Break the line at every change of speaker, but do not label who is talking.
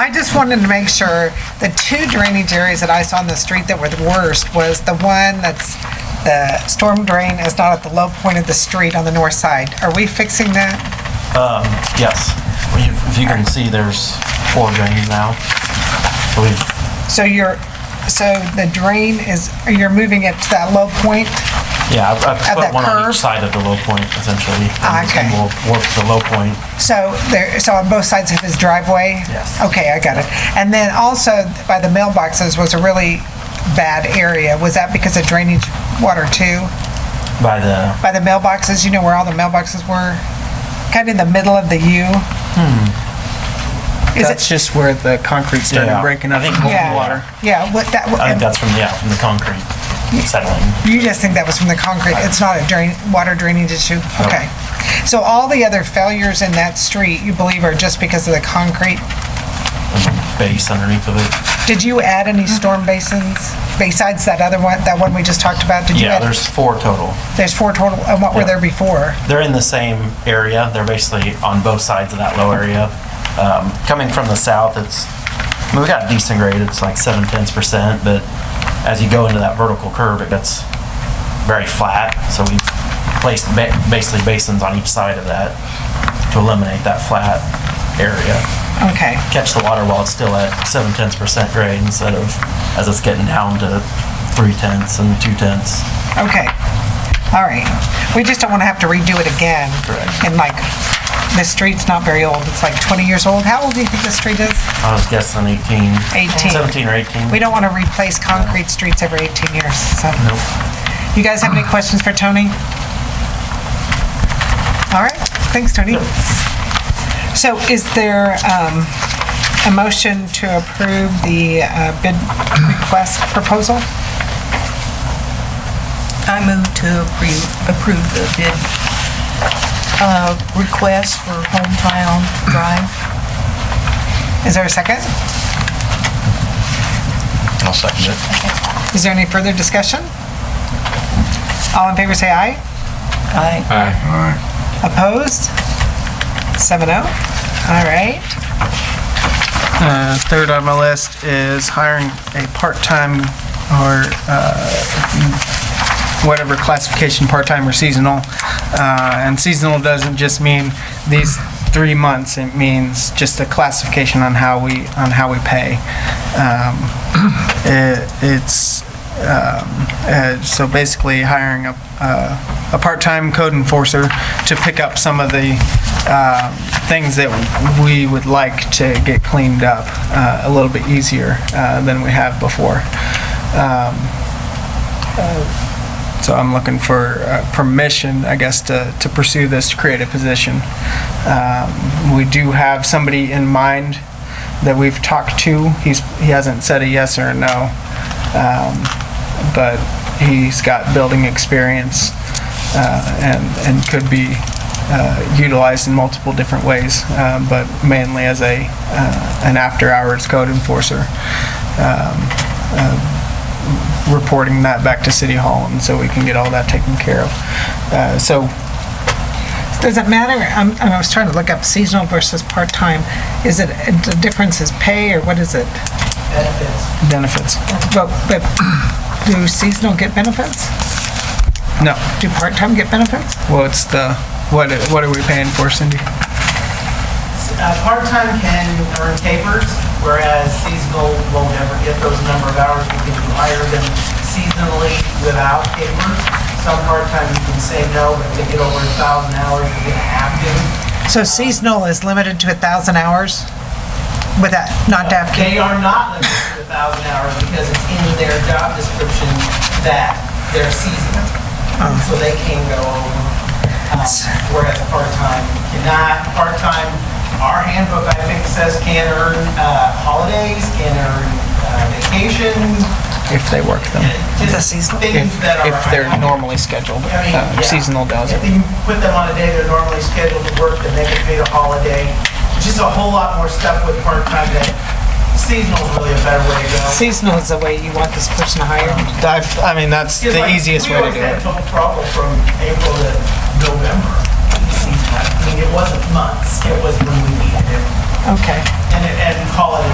I just wanted to make sure, the two drainage areas that I saw on the street that were the worst was the one that's, the storm drain is not at the low point of the street on the north side. Are we fixing that?
Yes. Well, you- If you can see, there's four drains now. So we've,
So you're, so the drain is, you're moving it to that low point?
yeah, I've- I've
At
put
that
one on
curve?
each side of the low point essentially.
Ah, okay.
And we'll work the low point.
So there, so on both sides of his driveway?
Yes.
Okay, I got it. And then also by the mailboxes was a really bad area. Was that because of drainage water too?
by the,
By the mailboxes, you know where all the mailboxes were? Kind of in the middle of the U?
Hmm.
Is
That's
it?
just where the concrete
Yeah.
started breaking up
I
in
think
the
Yeah.
water.
Yeah, what that,
I think that's from, yeah, from the concrete settling.
you just think that was from the concrete. It's not a drain, water drainage issue?
No.
Okay. So all the other failures in that street, you believe are just because of the concrete?
base underneath of it.
Did you add any
Mm-hmm.
storm basins besides that other one, that one we just talked about? Did you
Yeah,
add-
there's four total.
There's four total, and what were
Yeah.
there before?
They're in the same area. They're basically on both sides of that low area. Um, coming from the south, it's, I mean, we got a decent grade. It's like seven tenths percent, but as you go into that vertical curve, it gets very flat. So we've placed ba- basically basins on each side of that to eliminate that flat area.
Okay,
Catch the water while it's still at seven tenths percent grade instead of as it's getting down to three tenths and two tenths.
okay, all right. We just don't want to have to redo it again.
Correct.
And like, the street's not very old, it's like 20 years old. How old do you think the street is?
I was guessing 18.
18.
17 or 18.
We don't want to replace concrete streets every 18 years, so.
Nope.
You guys have any questions for Tony? All right, thanks, Tony. So is there um, a motion to approve the uh, bid request proposal?
I move to approve, approve the bid, uh, request for hometown drive.
Is there a second?
I'll second it.
Is there any further discussion? All in favor, say aye.
I,
Opposed? 7-0. All right.
Uh, Third on my list is hiring a part-time or uh, whatever classification, part-time or seasonal. Uh, And seasonal doesn't just mean these three months, it means just a classification on how we, on how we pay. Um, it- It's, um, uh, so basically hiring a, uh, a part-time code enforcer to pick up some of the uh, things that we would like to get cleaned up uh, a little bit easier uh, than we have before. Um, uh, So I'm looking for uh, permission, I guess, to, to pursue this, to create a position. Um, We do have somebody in mind that we've talked to. He's, he hasn't said a yes or a no but he's got building experience uh, and and could be uh, utilized in multiple different ways, uh, but mainly as a uh, an after-hours code enforcer, um, uh, reporting that back to City Hall, and so we can get all that taken care of. Uh, so
Does it matter? I'm- I was trying to look up seasonal versus part-time. Is it, the difference is pay or what is it?
benefits,
But, but do seasonal get benefits?
no.
Do part-time get benefits?
Well, it's the what what are we paying for, Cindy?
Uh, Part-time can earn capers, whereas seasonal won't ever get those number of hours. You can hire them seasonally without capers. Some part-time you can say no, but if they get over a thousand hours, you're gonna have to.
So seasonal is limited to a 1,000 hours without, not to have kids?
They are not limited to a thousand hours because it's in their job description that they're seasonal. So they can go over, um, whereas part-time cannot. Part-time, our handbook, I think, says can earn uh, holidays, can earn uh, vacations,
If they work them,
The
just
seasonal?
things
if
that are.
if they're normally scheduled,
I mean,
uh,
yeah.
seasonal does
If
it.
you put them on a day they're normally scheduled to work, then they get paid a holiday. Just a whole lot more stuff with part-time that seasonal is really a better way to go.
Seasonal is the way you want this person hired?
I've, I mean, that's
It's
the
like,
easiest way to do
We
it.
always had total trouble from April to November. I mean, it wasn't months, it was when we needed it.
Okay.
And, it- and call it a